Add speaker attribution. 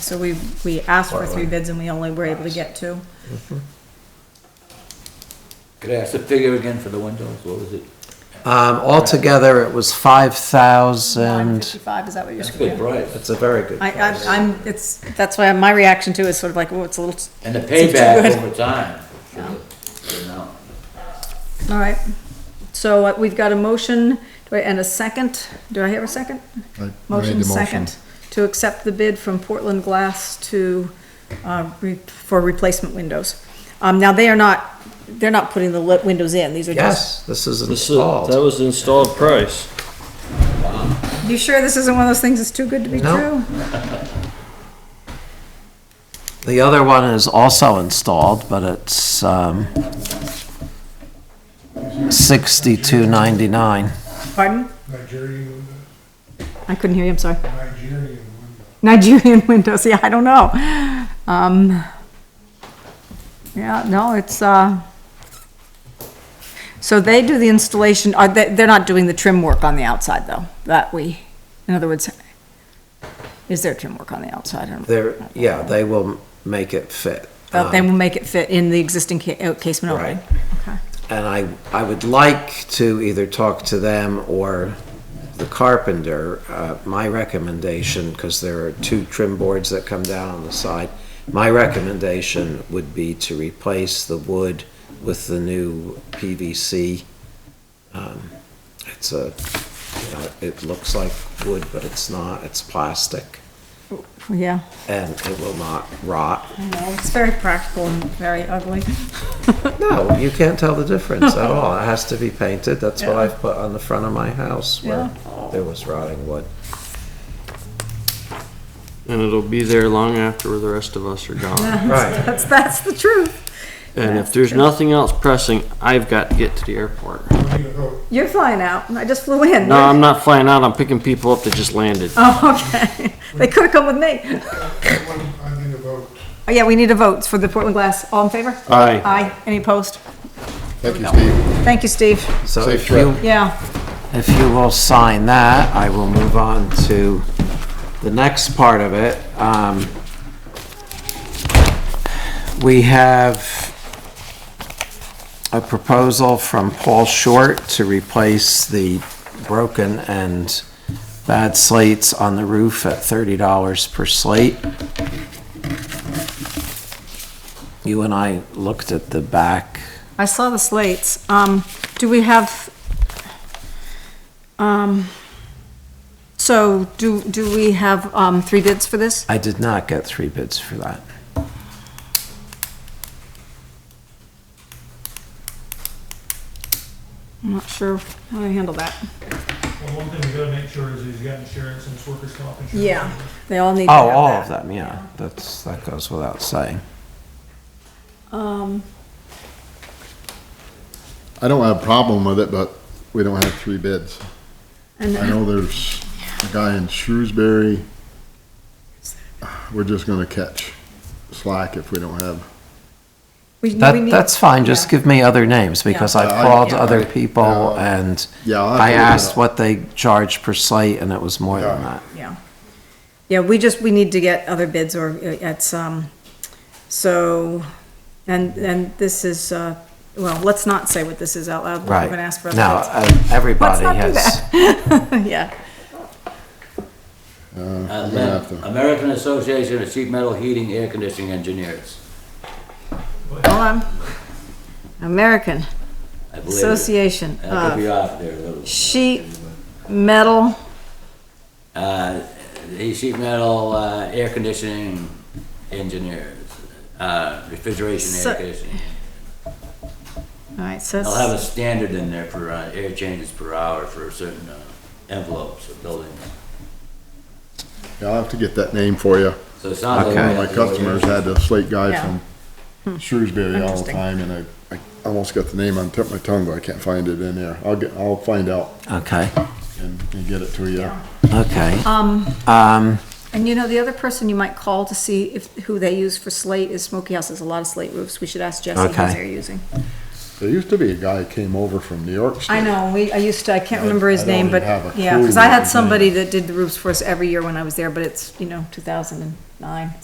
Speaker 1: So we, we asked for three
Speaker 2: Right.
Speaker 1: bids and we only were able to get two.
Speaker 3: Could I ask the figure again for the windows? What was it?
Speaker 2: Um, altogether, it was
Speaker 1: Nine
Speaker 2: five thousand.
Speaker 1: fifty-five, is that what you're
Speaker 3: That's a good
Speaker 1: saying?
Speaker 3: price.
Speaker 2: It's a very good.
Speaker 1: I, I, I'm, it's, that's why my reaction to it is sort of like, oh, it's a little,
Speaker 3: And the
Speaker 1: Seems too
Speaker 3: payback
Speaker 1: good.
Speaker 3: over time.
Speaker 1: Yeah.
Speaker 3: You know,
Speaker 1: all right. So uh, we've got a motion, do I, and a second, do I have a second?
Speaker 4: I made
Speaker 1: Motion
Speaker 4: the
Speaker 1: second, to accept the bid from Portland Glass to, uh, re- for replacement windows. Um, now they are not, they're not putting the lit windows in, these are just,
Speaker 2: Yes, this is
Speaker 5: This is, that
Speaker 2: installed.
Speaker 5: was the installed price.
Speaker 1: you sure this isn't one of those things that's too good to be
Speaker 2: No.
Speaker 1: true?
Speaker 2: The other one is also installed, but it's, um, sixty-two ninety-nine.
Speaker 1: Pardon?
Speaker 4: Nigerian window,
Speaker 1: I couldn't hear you, I'm sorry.
Speaker 4: Nigerian window.
Speaker 1: Nigerian windows, yeah, I don't know. Um, yeah, no, it's, uh, so they do the installation, are they, they're not doing the trim work on the outside though, that we, in other words, is there trim work on the outside? I don't-
Speaker 2: There, yeah, they will make it fit.
Speaker 1: But they
Speaker 5: Uh,
Speaker 2: Um,
Speaker 1: will make it fit in the existing ca- uh, casement
Speaker 2: Right.
Speaker 1: opening? Okay.
Speaker 2: And I, I would like to either talk to them or the carpenter, uh, my recommendation, because there are two trim boards that come down on the side. My recommendation would be to replace the wood with the new PVC. Um, It's a, you know, it looks like wood, but it's not, it's plastic,
Speaker 1: Yeah,
Speaker 2: and it will not rot.
Speaker 1: I know, it's very practical and very ugly.
Speaker 2: No, you can't tell the difference at all. It has to be painted. That's what I've put on the front of my house where there was rotting wood.
Speaker 5: And it'll be there long after the rest of us are gone.
Speaker 2: Right.
Speaker 1: That's, that's the truth.
Speaker 5: And if there's nothing else pressing, I've got to get to the airport.
Speaker 4: You know,
Speaker 1: You're flying out, I just flew in.
Speaker 5: No, I'm not flying out, I'm picking people up that just landed.
Speaker 1: Oh, okay, they could have come with me.
Speaker 4: that one, I think about,
Speaker 1: Oh, Yeah, we need a vote for the Portland Glass. All in favor?
Speaker 5: Aye.
Speaker 1: Aye. Any opposed?
Speaker 4: thank you, Steve.
Speaker 1: Thank you, Steve.
Speaker 2: So
Speaker 4: Safe
Speaker 2: if you,
Speaker 1: Yeah.
Speaker 2: if you will sign that, I will move on to the next part of it. Um, we have a proposal from Paul Short to replace the broken and bad slates on the roof at thirty dollars per slate. You and I looked at the back.
Speaker 1: I saw the slates. Um, do we have, um, so do, do we have, um, three bids for this?
Speaker 2: I did not get three bids for that.
Speaker 1: I'm not sure how to handle that.
Speaker 6: Well, one thing we gotta make sure is he's got insurance and it's workers' comp insurance.
Speaker 1: Yeah, they all need to have
Speaker 2: Oh,
Speaker 1: that.
Speaker 2: all of them, yeah. That's, that goes without saying.
Speaker 1: Um,
Speaker 4: I don't have a problem with it, but we don't have three bids.
Speaker 1: and
Speaker 4: I know there's a guy in Shrewsbury. We're just gonna catch slack if we don't have.
Speaker 1: we, we
Speaker 2: That,
Speaker 1: need.
Speaker 2: that's fine, just give me other names, because I've
Speaker 4: Yeah.
Speaker 2: called
Speaker 4: Yeah.
Speaker 2: other
Speaker 4: Yeah.
Speaker 2: people and
Speaker 4: Yeah. I'll have
Speaker 2: I
Speaker 4: to look it
Speaker 2: asked
Speaker 4: up.
Speaker 2: what they charge per slate, and it was more than
Speaker 4: Yeah.
Speaker 2: that.
Speaker 1: Yeah. Yeah, we just, we need to get other bids or uh, it's, um, so, and, and this is, uh, well, let's not say what this is out loud.
Speaker 2: Right.
Speaker 1: We're gonna ask for
Speaker 2: Now,
Speaker 1: other
Speaker 2: uh, everybody
Speaker 1: not do
Speaker 2: has,
Speaker 1: bids. Yeah.
Speaker 3: Uh,
Speaker 4: I'm gonna have
Speaker 3: then,
Speaker 4: to-
Speaker 3: American Association of Sheet Metal Heating Air Conditioning Engineers.
Speaker 1: Hold on. American
Speaker 3: I believe. it.
Speaker 1: Association
Speaker 3: I could
Speaker 1: of
Speaker 3: be off there a little.
Speaker 1: Sheet Metal,
Speaker 3: Uh, the sheet metal, uh, air conditioning engineers, uh, refrigeration,
Speaker 1: So-
Speaker 3: air conditioning.
Speaker 1: alright, so
Speaker 3: They'll have a
Speaker 1: it's,
Speaker 3: standard in there for, uh, air changes per hour for certain uh, envelopes of buildings.
Speaker 4: Yeah, I'll have to get that name for you.
Speaker 3: So it sounds like.
Speaker 2: Okay.
Speaker 4: One
Speaker 3: we
Speaker 4: of my
Speaker 3: have to go with
Speaker 4: customers
Speaker 3: yours.
Speaker 4: had a slate
Speaker 1: Yeah. Hmm.
Speaker 4: guy from Shrewsbury all the
Speaker 1: Interesting.
Speaker 4: time, and I, I almost got the name on tip of my tongue, but I can't find it in there. I'll get, I'll find out
Speaker 2: okay,
Speaker 4: and, and get it to you.
Speaker 2: okay.
Speaker 1: um,
Speaker 2: Um,
Speaker 1: and you know, the other person you might call to see if, who they use for slate is Smoky House, there's a lot of slate roofs, we should ask Jesse who
Speaker 2: Okay.
Speaker 1: they're using.
Speaker 4: There used to be a guy who came over from New York State.
Speaker 1: I know, we, I used to, I can't
Speaker 4: I-
Speaker 1: remember his
Speaker 4: I don't
Speaker 1: name,
Speaker 4: even
Speaker 1: but,
Speaker 4: have a
Speaker 1: yeah,
Speaker 4: clue
Speaker 1: because I
Speaker 4: what
Speaker 1: had
Speaker 4: his
Speaker 1: somebody
Speaker 4: name
Speaker 1: that did the roofs for us every year when I was there, but it's, you know, two thousand and nine,